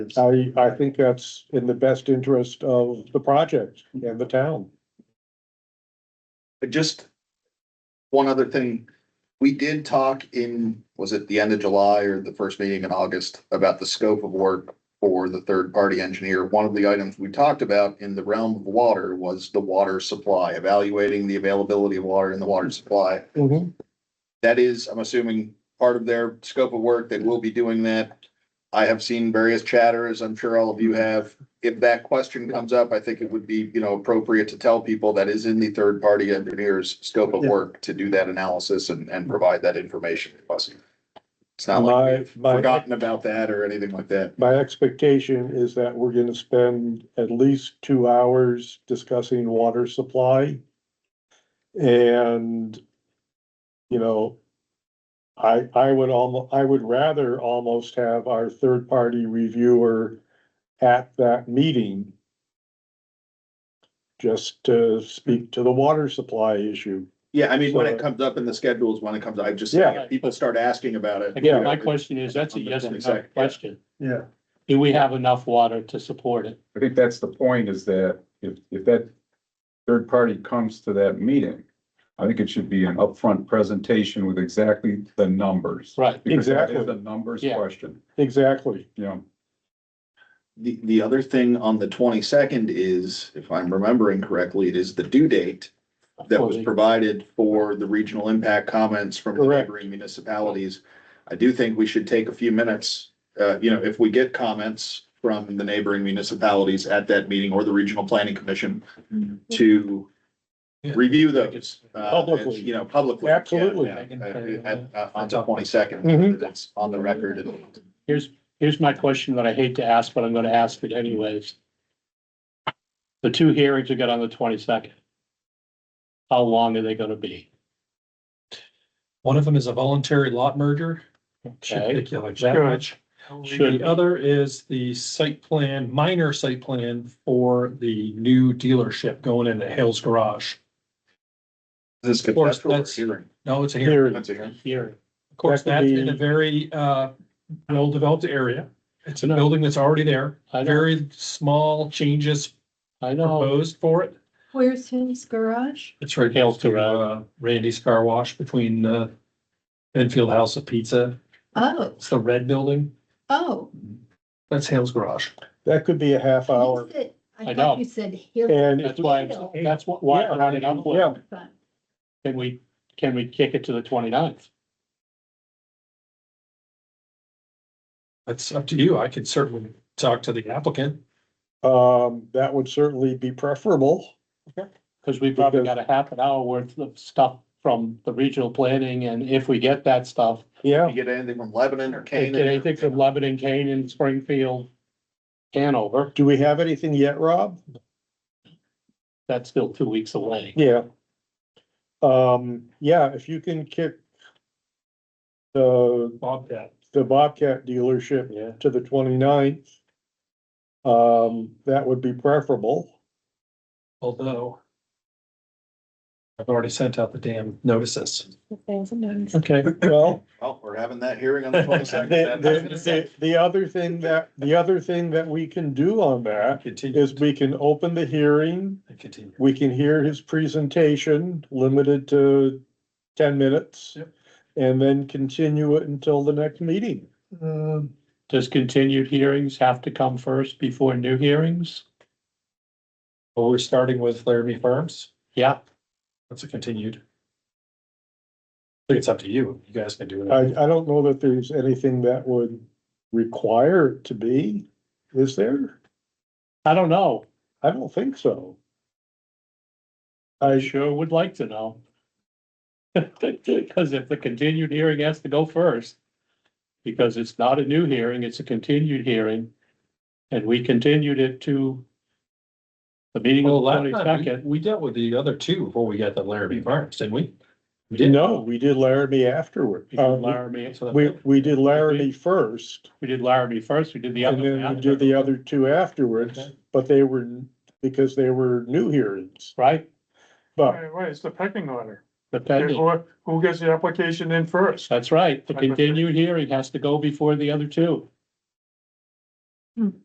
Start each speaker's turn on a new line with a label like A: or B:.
A: I, I think that's in the best interest of the project and the town.
B: But Just one other thing, we did talk in, was it the end of July or the first meeting in August about the scope of work for the third party engineer. One of the items we talked about in the realm of water was the water supply, evaluating the availability of water in the water supply.
A: Mm-hmm.
B: That is, I'm assuming, part of their scope of work. They will be doing that. I have seen various chatter, as I'm sure all of you have. If that question comes up, I think it would be, you know, appropriate to tell people that is in the third party engineer's scope of
A: Yeah.
B: work to do that analysis and, and provide that information to us. It's not like
A: My,
B: we've
A: my,
B: forgotten about that or anything like that.
A: my expectation is that we're gonna spend at least two hours discussing water supply. And, you know, I, I would almost, I would rather almost have our third-party reviewer at that meeting just to speak to the water supply issue.
B: Yeah, I mean, when it
A: So-
B: comes up in the schedules, when it comes, I just,
A: Yeah.
B: if people start asking about it.
C: Again,
B: you
C: my
B: know,
C: question is, that's a
B: On the
C: yes or no
B: 22nd, yeah.
C: question.
A: Yeah.
C: Do we have enough water to support it?
D: I think that's the point is that if, if that third party comes to that meeting, I think it should be an upfront presentation with exactly the numbers.
C: Right,
D: Because that is
A: Exactly.
D: a numbers
C: Yeah.
D: question,
A: Exactly.
D: you know.
B: The, the other thing on the twenty-second is, if I'm remembering correctly, it is the due date that was
C: Fully.
B: provided for the regional impact comments from the
A: Correct.
B: neighboring municipalities. I do think we should take a few minutes, uh, you know, if we get comments from the neighboring municipalities at that meeting or the regional planning commission to
E: Yeah.
B: review those. uh,
A: Publicly.
B: You know, publicly. Yeah,
A: Absolutely.
B: yeah. Uh, at- uh, On the twenty-second,
A: Mhm.
B: that's on the record and
C: here's, here's my question that I hate to ask, but I'm gonna ask it anyways. The two hearings we got on the twenty-second. How long are they gonna be?
E: One of them is a voluntary lot merger. Should
C: Okay.
E: take you like that much.
C: Should-
E: The other is the site plan, minor site plan for the new dealership going in at Hales Garage.
B: this is
E: Of course,
B: conceptual or
E: that's-
B: hearing.
E: No, it's a hearing.
A: Here,
B: That's a hearing.
C: Hearing.
E: Of course,
A: That could
E: that's in a
A: be-
E: very uh well-developed area. It's a
C: No.
E: building that's already there.
C: I know,
E: Very small changes
C: I know,
E: proposed for it.
F: Where's his garage?
E: It's right
C: Hales
E: next to uh Randy's Car Wash between uh Enfield House of Pizza.
F: Oh,
E: It's the red building.
F: oh.
E: That's Hales Garage.
A: that could be a half hour
F: you said-
C: I
F: I
C: know.
F: thought you said here.
A: and.
C: that's why, I'm- that's wh- why I'm running up with,
A: Yeah.
C: can we, can we kick it to the 29th?
E: That's up to you. I could certainly talk to the applicant.
A: Um, that would certainly be preferable.
C: Cause we probably
A: Because-
C: got a half an hour worth of stuff from the regional planning, and if we get that stuff,
A: Yeah,
B: You get anything from Lebanon or
C: Get
B: Canaan?
C: anything from Lebanon, Canaan, Springfield, Hanover,
A: do we have anything yet, Rob?
C: that's still two weeks away.
A: Yeah. Um, yeah, if you can kick the,
E: Bobcat.
A: the Bobcat dealership
C: Yeah.
A: to the 29th, um, that would be preferable.
E: Although I've already sent out the damn notices.
C: Okay.
A: Well,
B: Well, we're having that hearing on the
A: the,
B: twenty-second.
A: the, the, the other thing that, the other thing that we can do on that
E: Continue,
A: is we can open the hearing
E: continue.
A: We can hear his presentation, limited to ten minutes.
E: Yep.
A: And then continue it until the next meeting.
C: Does continued hearings have to come first before new hearings?
E: Well, we're starting with Laramie Farms.
C: Yeah,
E: That's a continued. I think it's up to you. You guys can do
A: I,
E: it.
A: I don't know that there's anything that would require it to be, is there?
C: I don't know.
A: I don't think so.
C: I
A: I,
C: sure would like to know. Cause if the continued hearing has to go first, because it's not a new hearing, it's a continued hearing. And we continued it to the meeting
E: Well,
C: on the
E: last time,
C: twenty-second.
E: we- we dealt with the other two before we got the Laramie Farms, didn't we? We did.
A: no, we did Laramie afterward. Uh,
C: Laramie,
E: So that-
A: We, we did Laramie first.
C: we did Laramie first, we did the other.
A: And
C: one
A: then we did the other two afterwards,
E: Okay.
A: but they were, because they were new hearings,
C: Right?
A: but.
G: Right, right, it's the pecking order.
C: The pending,
G: Who- Who gets the application in first?
C: that's right, the continued hearing has to go before the other two.
F: Hmm.